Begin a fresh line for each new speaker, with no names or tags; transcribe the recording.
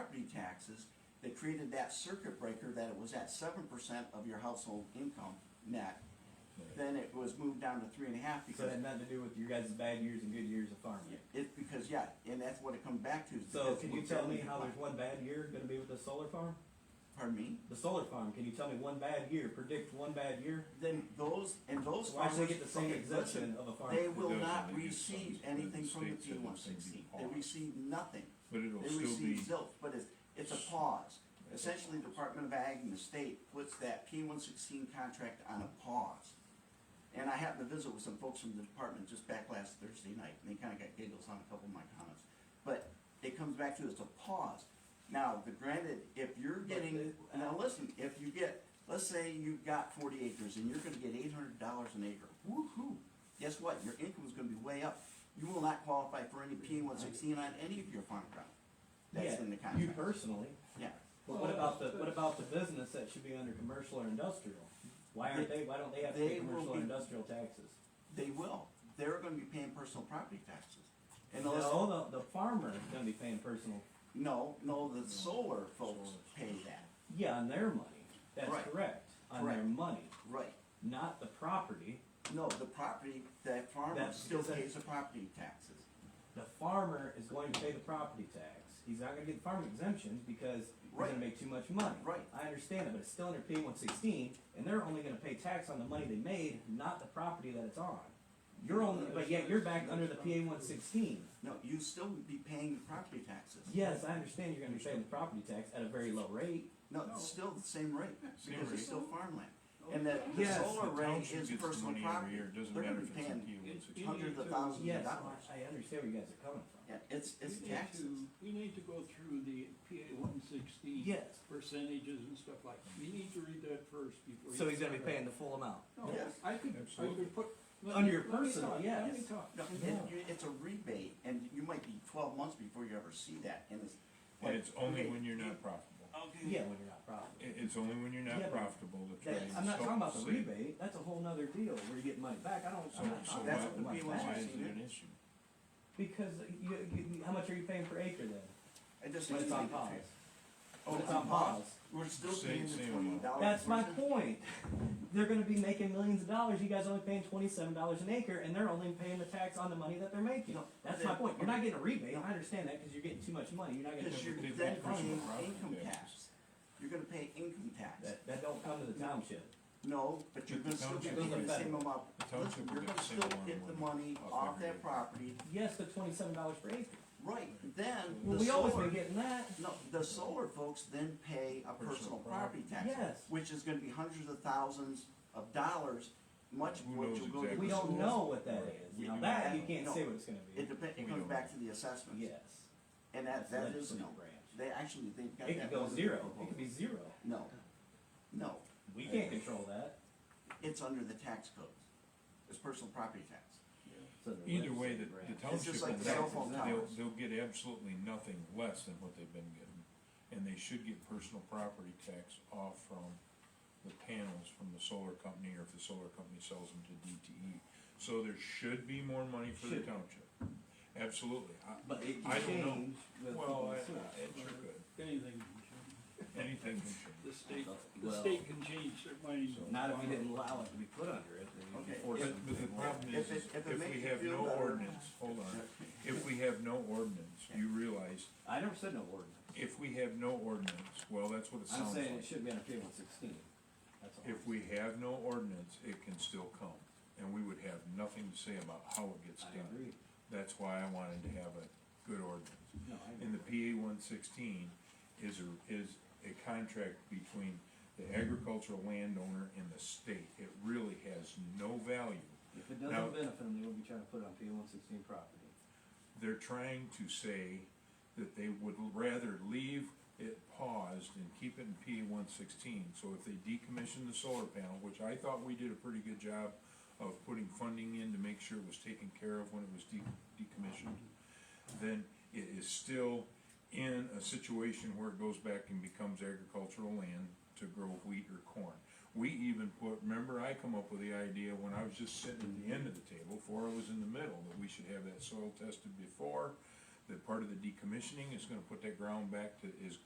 property taxes, they created that circuit breaker that it was at seven percent of your household income net. Then it was moved down to three and a half
So it
because,
had nothing to do with your guys' bad years and good years of farming.
it's because, yeah, and that's what it comes back to. is
So
because
can
we're
you tell me
building
how
upon-
there's one bad year gonna be with the solar farm?
Pardon me?
The solar farm, can you tell me one bad year, predict one bad year?
Then those, and those
Why
farmers.
should they get the same
okay, listen,
exemption of a
They
farmer?
will
doesn't
not
really use
receive
funds, but
anything
the
from the
state
P
said
one
it's gonna be
sixty, they
paused.
receive nothing.
But it'll
They
still
receive
be,
zilch, but it's, it's a pause. Essentially, Department of Ag and the state puts that P one sixteen contract on a pause. And I happened to visit with some folks from the department just back last Thursday night, and they kinda got giggles on a couple of my comments. But it comes back to it's a pause. Now, the granted, if you're getting,
the-
now listen, if you get, let's say you've got forty acres and you're gonna get eight hundred dollars an acre, woo-hoo. Guess what? Your income is gonna be way up. You will not qualify for any P one sixteen on any of your farm ground.
Yeah,
That's in the
you
contract.
personally,
Yeah.
but what about the, what about the business that should be under commercial or industrial? Why aren't they, why don't they have to
They
pay
will
commercial or
be-
industrial taxes?
They will. They're gonna be paying personal property taxes. And unless-
No, the, the farmer is gonna be paying personal,
No, no, the solar folks pay that.
yeah, on their money, that's
Right.
correct, on their
Correct.
money,
Right.
not the property.
No, the property, the farmer
That's
still
because I-
pays the property taxes.
The farmer is going to pay the property tax. He's not gonna get the farm exemption because he's
Right.
gonna make too much money.
Right.
I understand it, but it's still under P one sixteen, and they're only gonna pay tax on the money they made, not the property that it's on. You're only, but yet you're back under the PA one sixteen.
No, you still would be paying the property taxes.
Yes, I understand you're gonna be paying the property tax at a very low rate.
No, it's still the same rate,
Same
because it's
rate.
still farmland. And the, the
Yes,
solar
the
rate
township
is
gets the
personal
money every
property.
year, it doesn't
They're
matter
gonna
if
be
it's in
paying
P one sixty.
hundreds of thousands of
Yes,
dollars.
I I understand where you guys are coming from.
Yeah, it's, it's
We need
taxes.
to- We need to go through the PA one sixteen.
Yes.
Percentages and stuff like, you need to read that first before.
So
you
he's gonna be
start.
paying the full amount.
No,
Yes.
I could, I
Absolutely.
could put. let
Under
me-
your
let me
personal,
talk, Let me
yes.
talk.
No, it, you- it's a rebate, and you might be twelve months before you ever see that, and it's.
And it's
okay,
only when you're not profitable.
Yeah, when you're not profitable.
It, it's only when you're
Yeah, but
not profitable that
That-
trying to.
I'm not talking about the
save.
rebate, that's a whole nother deal, where you get money back, I don't,
So,
I'm not
so
talking
that's
about
what
money
we
why,
want
why
back.
is
to
it
do.
an issue?
Because you, you, how much are you paying per acre then?
I just.
When it's on
explained it
pause?
to you.
When
Oh,
it's on pause?
We're still
Same-
paying the
same
twenty
amount.
dollars.
That's my point. They're gonna be making millions of dollars, you guys only paying twenty-seven dollars an acre, and they're only paying the tax on the money that they're making.
No,
That's
they-
my point, you're not getting a rebate, I understand that, cause you're getting too much money, you're not
Because
getting.
you're
They've
then
got personal
paying
property
income
taxes.
tax. You're gonna pay income tax.
That, that don't come to the township.
No, but you're
But
gonna
the
still be
township-
paying the same amount.
The township
Listen,
will
you're
get
gonna
the same
still
amount of
get the money
money off
off
every
that
acre.
property.
Yes, but twenty-seven dollars per acre.
Right, then
Well,
the
we always
solar,
been getting that.
no, the solar folks then pay a
Personal
personal
property.
property tax.
Yes.
Which is gonna be hundreds of thousands of dollars, much of
Who
which
knows
will go to.
exactly
We
the
don't
schools.
know what that is.
We
Now
do
that,
not
you
know.
can't
No.
say what it's gonna be.
It depends, it
We
comes
don't
back
know.
to the assessments.
Yes.
And that, that is
Legislative
no,
branch.
they actually, they've got that.
It could go
under
zero,
control.
it could be zero.
No, no,
We can't control that.
it's under the tax code, it's personal property tax.
So the
Either way,
legislative
the, the
branch.
It's
township
just
will
like the cell
not,
phone
they'll,
towers.
they'll get absolutely nothing less than what they've been getting. And they should get personal property tax off from the panels from the solar company, or if the solar company sells them to DTE. So there should be more money for the
Should.
township, absolutely. I-
But it
I
can
don't know.
change with.
Well, I-
people.
I- it sure could,
Anything, can change.
anything can change.
the state, the
Well-
state can change their mind.
Not if you didn't allow it to be put under it, then you
Okay,
can force it.
But, but the problem is,
If it-
is
if it
if
makes
we
you
have
feel
no
better.
ordinance, hold on, if we have no ordinance, you realize,
I never said no ordinance.
if we have no ordinance, well, that's what it
I'm
sounds
saying it
like.
should be under P one sixteen. That's all.
If we have no ordinance, it can still come, and we would have nothing to say about how it gets
I
done.
agree.
That's why I wanted to have a good ordinance.
No, I agree.
And the PA one sixteen is a, is a contract between the agricultural landowner and the state. It really has no value
If it
Now-
doesn't benefit them, they will be trying to put it on P one sixteen property.
they're trying to say that they would rather leave it paused and keep it in P one sixteen. So if they decommission the solar panel, which I thought we did a pretty good job of putting funding in to make sure it was taken care of when it was de- decommissioned, then it is still in a situation where it goes back and becomes agricultural land to grow wheat or corn. We even put, remember I come up with the idea when I was just sitting at the end of the table, Flora was in the middle, that we should have that soil tested before, that part of the decommissioning is gonna put that ground back to, is